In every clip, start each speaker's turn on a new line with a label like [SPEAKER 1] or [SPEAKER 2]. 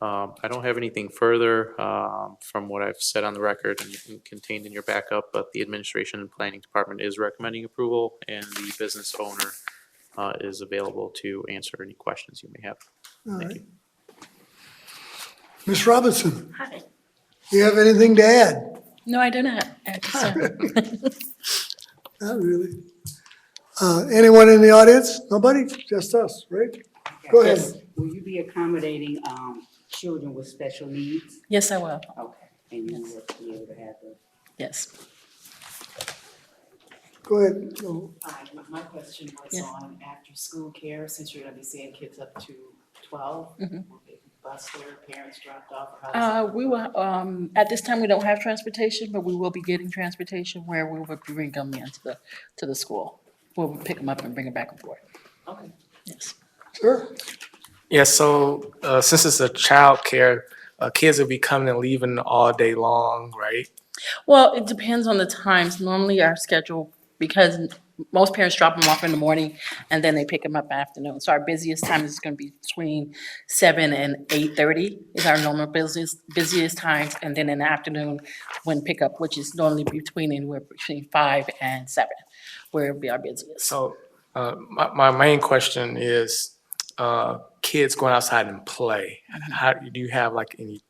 [SPEAKER 1] Um, I don't have anything further, um, from what I've said on the record and- and contained in your backup, but the administration and planning department is recommending approval and the business owner, uh, is available to answer any questions you may have.
[SPEAKER 2] All
[SPEAKER 1] Thank
[SPEAKER 2] right.
[SPEAKER 1] you.
[SPEAKER 2] Ms. Robinson,
[SPEAKER 3] Hi.
[SPEAKER 2] you have anything to add?
[SPEAKER 3] No, I do not, actually, sir.
[SPEAKER 2] Not really. Uh, Anyone in the audience? Nobody? Just us, right? Go ahead.
[SPEAKER 4] Will you be accommodating, um, children with special needs?
[SPEAKER 3] Yes, I will,
[SPEAKER 4] Okay. And you will be able to have the.
[SPEAKER 3] yes.
[SPEAKER 2] Go ahead. No.
[SPEAKER 5] Hi, my- my question was
[SPEAKER 3] Yes.
[SPEAKER 5] on after-school care, since you're gonna be seeing kids up to twelve. Will they bus their parents dropped off or how does that?
[SPEAKER 3] Uh, we will, um, at this time, we don't have transportation, but we will be getting transportation where we will bring them into the, to the school. We'll pick them up and bring them back and forth,
[SPEAKER 5] Okay.
[SPEAKER 3] yes.
[SPEAKER 2] Sir?
[SPEAKER 6] Yeah, so uh, since it's a child care, uh, kids will be coming and leaving all day long, right?
[SPEAKER 3] Well, it depends on the times. Normally our schedule, because n- most parents drop them off in the morning and then they pick them up in the afternoon. So our busiest time is gonna be between seven and eight thirty is our normal busiest, busiest times. And then in the afternoon, when pickup, which is normally between anywhere between five and seven, where it'll be our busiest.
[SPEAKER 6] So uh, my, my main question is uh, kids going outside and play. How do you have like any?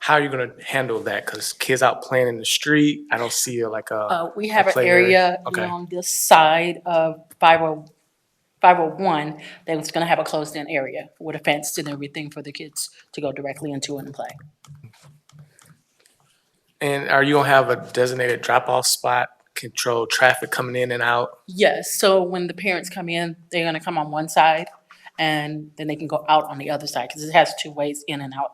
[SPEAKER 6] How are you going to handle that? Because kids out playing in the street, I don't see like a.
[SPEAKER 3] Uh, we have an
[SPEAKER 6] play area,
[SPEAKER 3] area
[SPEAKER 6] okay.
[SPEAKER 3] on this side of five oh, five oh one that was gonna have a closed-in area with a fence and everything for the kids to go directly into and play.
[SPEAKER 6] and are you going to have a designated drop off spot? Control traffic coming in and out.
[SPEAKER 3] Yes, so when the parents come in, they're gonna come on one side and then they can go out on the other side, because it has two ways in and out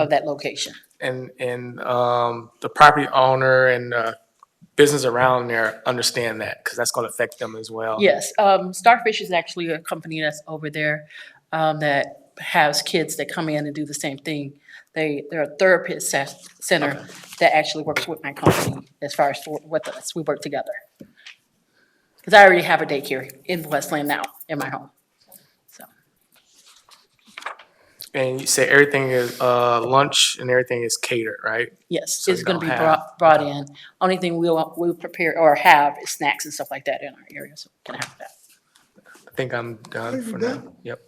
[SPEAKER 3] of that location.
[SPEAKER 6] and and um, the property owner and uh, business around there understand that because that's going to affect them as well.
[SPEAKER 3] Yes, um, Starfish is actually a company that's over there, um, that has kids that come in and do the same thing. They, they're a therapist ses- center that actually works with my company as far as for- with us, we work together. Because I already have a daycare in Westland now, in my home, so.
[SPEAKER 6] And you say everything is uh, lunch and everything is catered, right?
[SPEAKER 3] Yes,
[SPEAKER 6] So
[SPEAKER 3] it's
[SPEAKER 6] you
[SPEAKER 3] gonna be
[SPEAKER 6] don't have-
[SPEAKER 3] brought, brought in. Only thing we'll, we'll prepare or have is snacks and stuff like that in our area, so we can have that.
[SPEAKER 6] I think I'm done for now. Yep.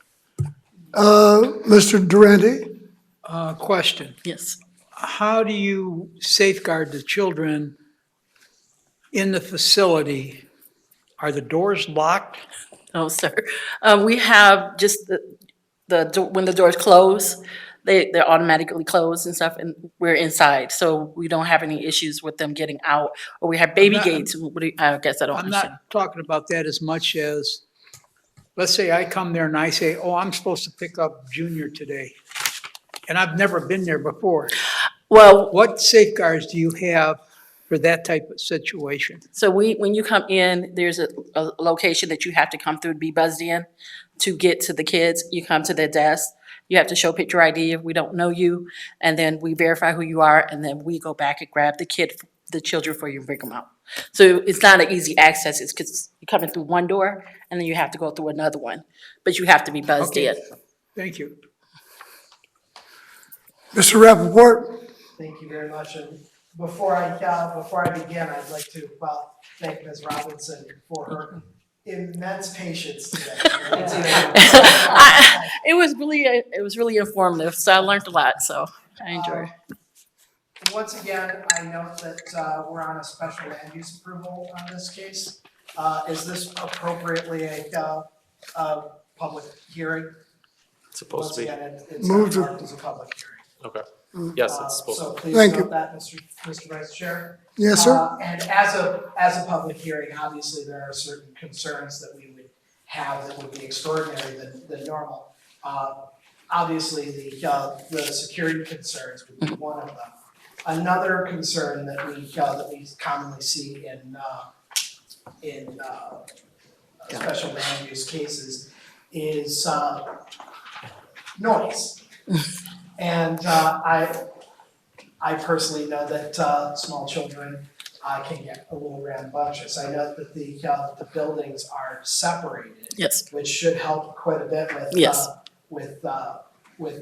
[SPEAKER 2] Uh, Mr. Durante?
[SPEAKER 7] Uh, question,
[SPEAKER 3] Yes.
[SPEAKER 7] how do you safeguard the children in the facility? Are the doors locked?
[SPEAKER 3] Oh, sir. Um, we have just the, the, do- when the doors close, they, they're automatically closed and stuff, and we're inside, so we don't have any issues with them getting out. Or we have baby
[SPEAKER 7] not-
[SPEAKER 3] gates, what do you, I guess I don't
[SPEAKER 7] I'm
[SPEAKER 3] understand.
[SPEAKER 7] not talking about that as much as, let's say I come there and I say, oh, I'm supposed to pick up Junior today. And I've never been there before.
[SPEAKER 3] Well,
[SPEAKER 7] What safeguards do you have for that type of situation?
[SPEAKER 3] So we, when you come in, there's a, a location that you have to come through to be buzzed in to get to the kids. You come to their desk, you have to show picture ID if we don't know you, and then we verify who you are, and then we go back and grab the kid, the children for you and bring them out. So it's not an easy access, it's 'cause you're coming through one door and then you have to go through another one, but you have to be buzzed
[SPEAKER 7] Okay.
[SPEAKER 3] in.
[SPEAKER 7] Thank you.
[SPEAKER 2] Mr. Rappaport?
[SPEAKER 8] Thank you very much, and before I, uh, before I begin, I'd like to, well, thank Ms. Robinson for her immense patience today.
[SPEAKER 3] I- It was really, it was really informative, so I learned a lot, so I enjoyed it.
[SPEAKER 8] Um, Once again, I note that uh, we're on a special land use approval on this case. Uh, Is this appropriately a uh, uh, public hearing?
[SPEAKER 1] It's supposed to be,
[SPEAKER 8] Once again, it- it's
[SPEAKER 2] Move to-
[SPEAKER 8] marked as a public hearing.
[SPEAKER 1] yes,
[SPEAKER 8] Uh,
[SPEAKER 1] it's supposed to.
[SPEAKER 8] So please
[SPEAKER 2] Thank you.
[SPEAKER 8] note that, Mr. Mr. Vice Chair.
[SPEAKER 2] Yes, sir?
[SPEAKER 8] Uh, And as a, as a public hearing, obviously, there are certain concerns that we would have that would be extraordinary than, than normal. Uh, Obviously, the, uh, the security concerns would
[SPEAKER 2] Mm-hmm.
[SPEAKER 8] be one of them. Another concern that we, uh, that we commonly see in, uh, in uh, special land use cases is uh, noise. And uh, I, I personally know that uh, small children uh, can get a little rambunctious. I know that the, uh, the buildings are separated,
[SPEAKER 3] Yes,
[SPEAKER 8] which should help quite a bit with, uh,
[SPEAKER 3] Yes.
[SPEAKER 8] with uh,